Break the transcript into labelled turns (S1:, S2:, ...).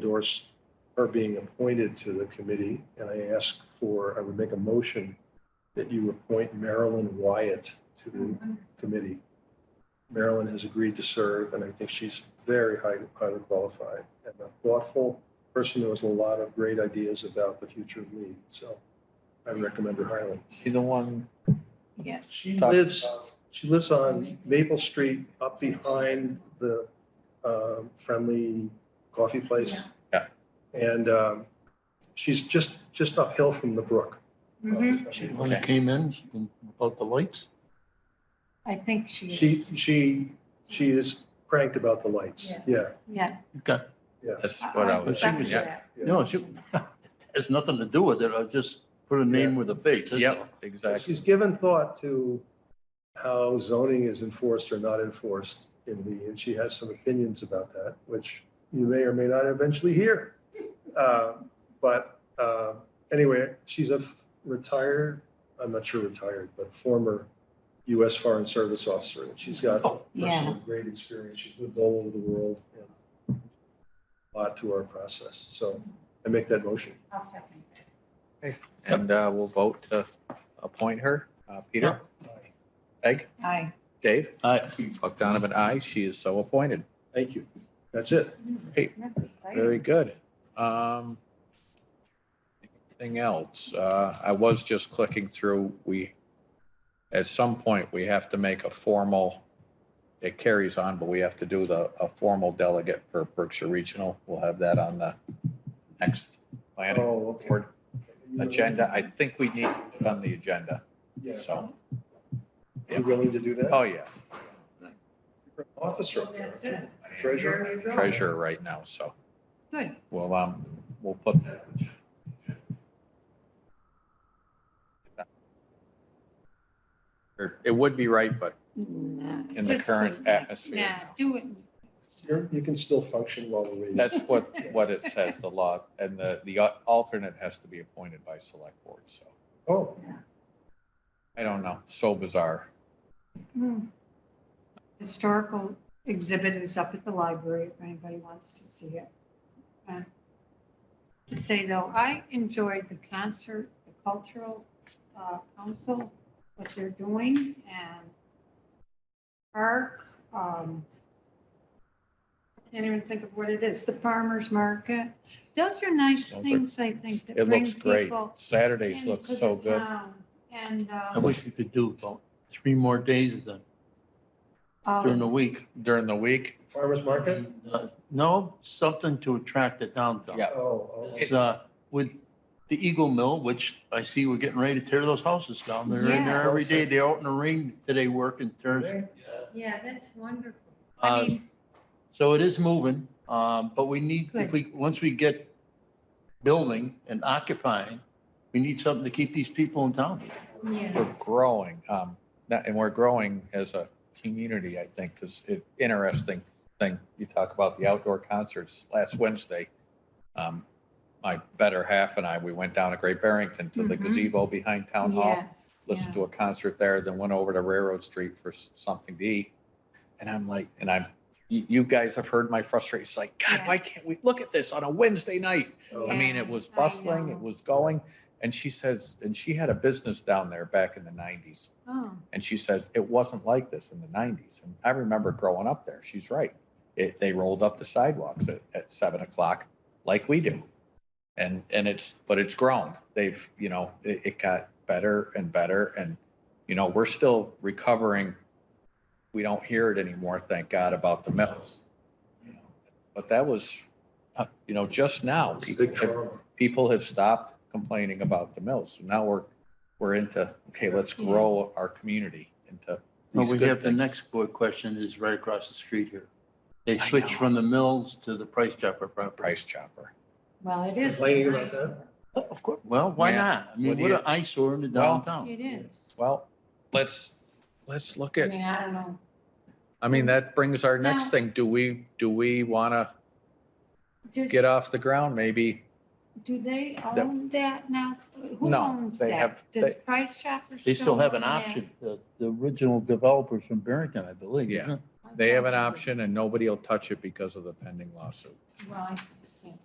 S1: endorse her being appointed to the committee. And I ask for, I would make a motion that you appoint Marilyn Wyatt to
S2: Mm-hmm.
S1: the committee. Marilyn has agreed to serve, and I think she's very highly, highly qualified and a thoughtful person who has a lot of great ideas about the future of Lee. So I recommend her highly.
S3: She the one,
S2: Yes.
S1: She
S3: Talk
S1: lives, she lives on Maple Street up behind the uh, friendly coffee place.
S3: Yeah.
S1: And um, she's just, just uphill from the brook.
S2: Mm-hmm.
S3: She-
S4: When it came in about the lights,
S2: I think she
S1: She,
S2: is.
S1: she, she is cranked about the lights.
S2: Yes.
S1: Yeah.
S2: Yeah.
S4: okay,
S3: that's what I was,
S4: She was-
S3: Oh, yeah,
S4: no, she, has nothing to do with it, I just put a name with a face. that's
S3: yeah,
S1: But
S3: exactly.
S1: She's given thought to how zoning is enforced or not enforced in the, and she has some opinions about that, which you may or may not eventually hear. Uh, But uh, anyway, she's a retired, I'm not sure retired, but former US Foreign Service officer. and She's got personal great experience. She's lived all over the world. and a Lot to our process. So I make that motion.
S2: I'll second that.
S3: And uh, we'll vote to appoint her. Uh, Peter, Peg,
S2: Aye.
S3: Dave,
S4: All right,
S3: Buck Donovan, aye. She is so appointed.
S1: Thank you. That's it.
S3: Hey,
S2: That's exciting.
S3: Very good. Um, Anything else? Uh, I was just clicking through, we, at some point, we have to make a formal, it carries on, but we have to do the, a formal delegate for Berkshire Regional. We'll have that on the next planning
S1: Oh, okay.
S3: board agenda. I think we need it on the agenda,
S1: Yeah.
S3: so.
S1: You willing to do that?
S3: Oh, yeah,
S1: Officer. up there.
S2: That's it.
S1: Treasurer.
S2: There you go.
S3: treasurer right now, so
S2: Good.
S3: we'll, um, we'll put that. Or It would be right, but in the current
S2: Nah,
S3: atmosphere.
S2: do it.
S1: You're- You can still function while we're waiting.
S3: That's what, what it says, the law, and the, the alternate has to be appointed by select board, so.
S1: Oh,
S3: I don't know, so bizarre.
S2: Hmm. Historical exhibit is up at the library if anybody wants to see it. Uh, To say though, I enjoyed the concert, the cultural uh, council, what they're doing and park. um, I Can't even think of what it is, the farmer's market. Those are nice
S3: Those are-
S2: things, I think, that
S3: It
S2: bring
S3: looks great.
S2: people
S3: Saturdays
S2: into
S3: look so
S2: the
S3: good.
S2: town. And. uh,
S4: I wish we could do about three more days then,
S2: uh,
S4: during the week.
S3: During the week,
S1: farmer's market?
S4: Uh, No, something to attract it down to.
S3: Yeah.
S1: Oh,
S4: It's, uh, with the Eagle Mill, which I see we're getting ready to tear those houses down, they're in there
S2: Yeah.
S4: every day, they're out in the rain today working, tears.
S1: okay.
S2: Yeah, that's wonderful.
S4: Uh,
S2: I mean,
S4: So it is moving, um, but we need, if we, once we get building and occupying, we need something to keep these people in town.
S2: yeah,
S3: we're growing, um, that- and we're growing as a community, I think, because it, interesting thing, you talk about the outdoor concerts last Wednesday. Um, my better half and I, we went down to Great Barrington to the
S2: Mhm.
S3: gazebo behind Town Hall,
S2: yes.
S3: listened to a concert there, then went over to Railroad Street for s- something to eat. And I'm like, and I'm, you, you guys have heard my frustration, it's like, God,
S2: Yeah.
S3: why can't we look at this on a Wednesday night? I
S1: Oh,
S3: mean,
S2: Yeah,
S3: it was
S2: I
S3: bustling,
S2: know.
S3: it was going, and she says, and she had a business down there back in the nineties.
S2: Oh,
S3: And she says, it wasn't like this in the nineties. And I remember growing up there. She's right. It, they rolled up the sidewalks at, at seven o'clock like we do. And, and it's, but it's grown. They've, you know, it, it got better and better and, you know, we're still recovering. We don't hear it anymore, thank God, about the mills. You know, But that was, uh, you know, just now.
S1: it's a
S3: people
S1: Big
S3: have-
S1: trauma.
S3: people have stopped complaining about the mills. So now we're, we're into, okay, let's grow our community into.
S4: Well,
S3: these
S4: we
S3: good
S4: have the
S3: things.
S4: next board question is right across the street here. They
S3: I
S4: switched
S3: know.
S4: from the mills to the Price Chopper property.
S3: Price chopper.
S2: well, it is.
S1: Complaining about
S2: nice.
S1: that?
S4: Oh, Of course, well, why
S3: Yeah.
S4: not? I mean,
S3: What do
S4: what
S3: you-
S4: an eyesore in the
S3: Well-
S4: downtown.
S2: It is.
S3: Well, let's, let's look
S2: I
S3: at,
S2: mean, I don't know.
S3: I mean, that brings our
S2: Now-
S3: next thing. Do we, do we want to
S2: Does,
S3: get off the ground? Maybe
S2: do they own that now? Who
S3: No,
S2: owns
S3: they
S2: that?
S3: have-
S2: Does
S3: they-
S2: Price Shoppers?
S4: They still have an
S2: own that?
S4: option, the, the original developers from Barrington, I believe.
S3: Yeah.
S4: isn't it?
S2: I
S3: they have
S2: thought
S3: an
S2: they-
S3: option and nobody will touch it because of the pending lawsuit.
S2: Well, I-